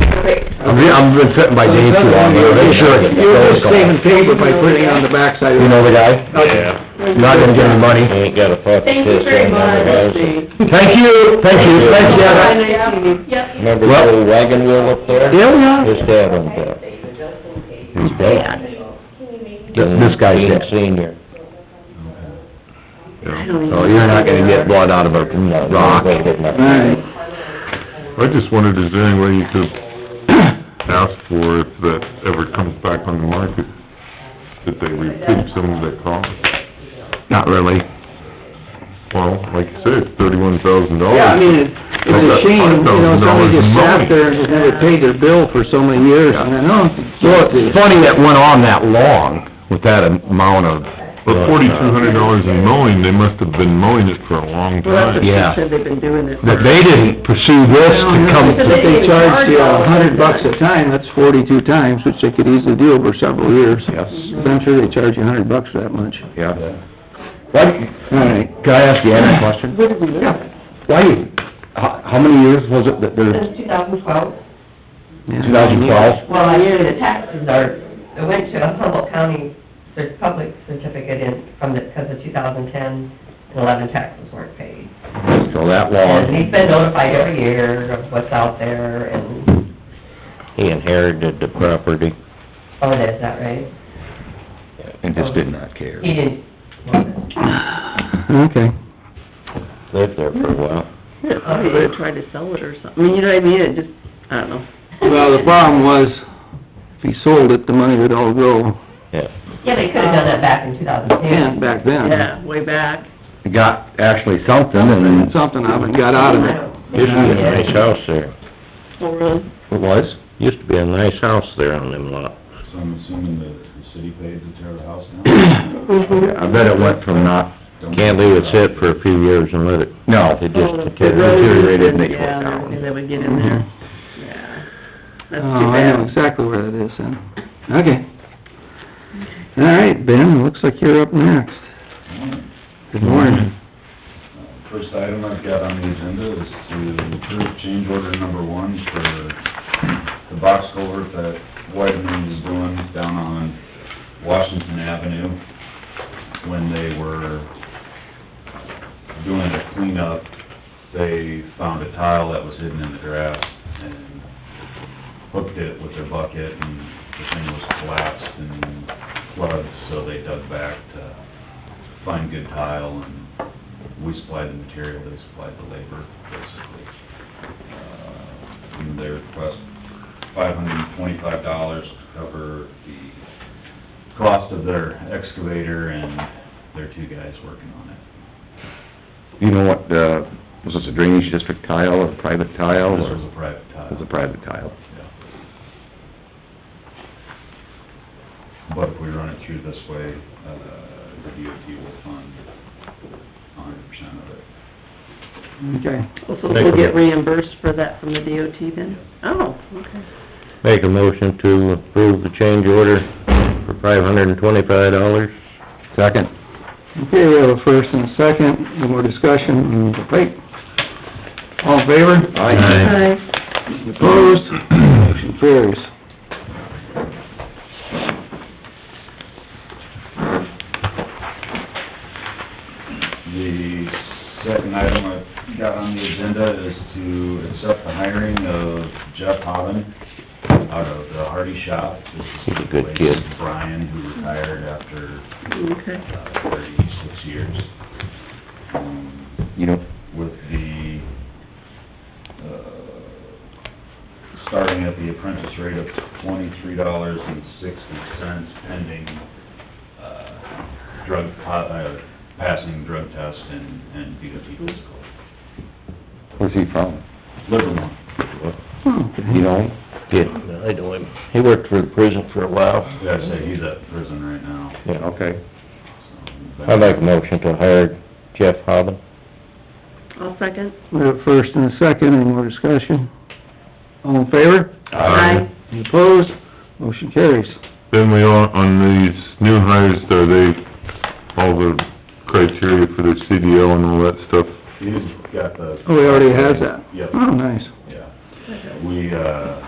great. I've been- I've been sitting by Dave too long, but make sure. it You're just goes on. saving paper by putting it on the backside of You it. know the guy? You're Not gonna get any money. Ain't got a fucking Thank you very much. Thank you, thank you, thanks, Bye, Janet. nice meeting you. Yep. Remember the Well- old wagon wheel up there? Yeah, we are. His dad owned that. His dad. This, this guy's Dean dead. Senior. So Oh, Oh, you're not gonna get blood out of a No, rock. they did not. Alright, I just wondered, is there any way you could ask for if that ever comes back on the market, that they recoup some of that cost? Not really. Well, like you said, it's thirty-one thousand dollars. yeah, I mean, it's it's a shame, you know, somebody just sat there and just never paid their bill for so many years, and I know. Well, it's funny that went on that long with that amount of, But forty-two hundred dollars in mowing, they must have been mowing it for a long time. yeah. they've been doing it. That they didn't pursue this to come But to... they charged you a hundred bucks a time, that's forty-two times, which they could easily do over several years. Yes. But I'm sure they charge you a hundred bucks for that much. Yeah. Why, Alright, Can I ask you a question? Where did we live? Why, you- how, how many years was it that there's, Since two thousand twelve, yeah. two thousand twelve? well, I knew the taxes are, I went to a Humboldt County cert- public certificate in, from the, because the two thousand ten and eleven taxes weren't paid. So that Oh. And he's long? been notified every year of what's out there and, He inherited the property. oh, it is, that right? And just did not care. He didn't want it. Okay. Lived there for a while. Yeah, probably would've tried to sell it or something, I mean, you know what I mean, it just, I don't know. Well, the problem was, if he sold it, the money would all go, Yeah. Yeah, they could've done that back in two thousand ten. in back then. Yeah, way back. Got actually something and then... Something of it got out of it. Used to be a nice house there. Oh, really? It was? Used to be a nice house there on them lot. So I'm assuming that the city paid to tear the house down? I bet it went from not, Can't leave it sit for a few years and let it, no, it Oh, the just deteriorates. deteriorated and they tore it Yeah, down. everything that would get um, in there, yeah. Oh, That's too I know bad. exactly where that is then. Okay. All right, Ben, looks like you're up next. Good morning. Uh, First item I've got on the agenda is to approve change order number one for the box culvert that Whiteman is doing down on Washington Avenue. When they were doing the cleanup, they found a tile that was hidden in the grass and hooked it with their bucket and the thing was collapsed and flooded, so they dug back to find good tile and we supplied the material, they supplied the labor, basically. Uh, And they request five hundred and twenty-five dollars to cover the cost of their excavator and their two guys working on it. You know what, uh, was this a drainage district tile or private tile This or? was a private Oh, tile. It was a private tile. Yeah. But if we run it through this way, uh, the DOT will fund a hundred percent of it. Okay. Well, So we'll get reimbursed for that from the DOT then? Oh, okay. Make a motion to approve the change order for five hundred and twenty-five dollars. Second? Okay, we have a first and a second, no more discussion, and we'll wait. All in favor? Aye. Opposed? Motion carries. The second item I've got on the agenda is to accept the hiring of Jeff Hoven out of the Hardy Shop. This is He's a good kid. Brian, who retired after Okay. uh, thirty-six years. Um, You know, with the, uh, starting at the apprentice rate of twenty-three dollars and sixty cents pending, uh, drug, po- uh, passing drug test and, and DOT physical. where's he from? Livermore, You know? Did, I know him. He worked for the prison for a while. yeah, I say he's at prison right now, Yeah, Okay. so. I'd like a motion to hire Jeff Hobbin. I'll second. We have a first and a second, any more discussion? All in favor? Aye. Any Opposed? Motion carries. Then we are, on these new hires, are they, all the criteria for their CDL and all that stuff? He's got the. Oh, he already has that? Yep, Oh, nice. yeah. We, uh,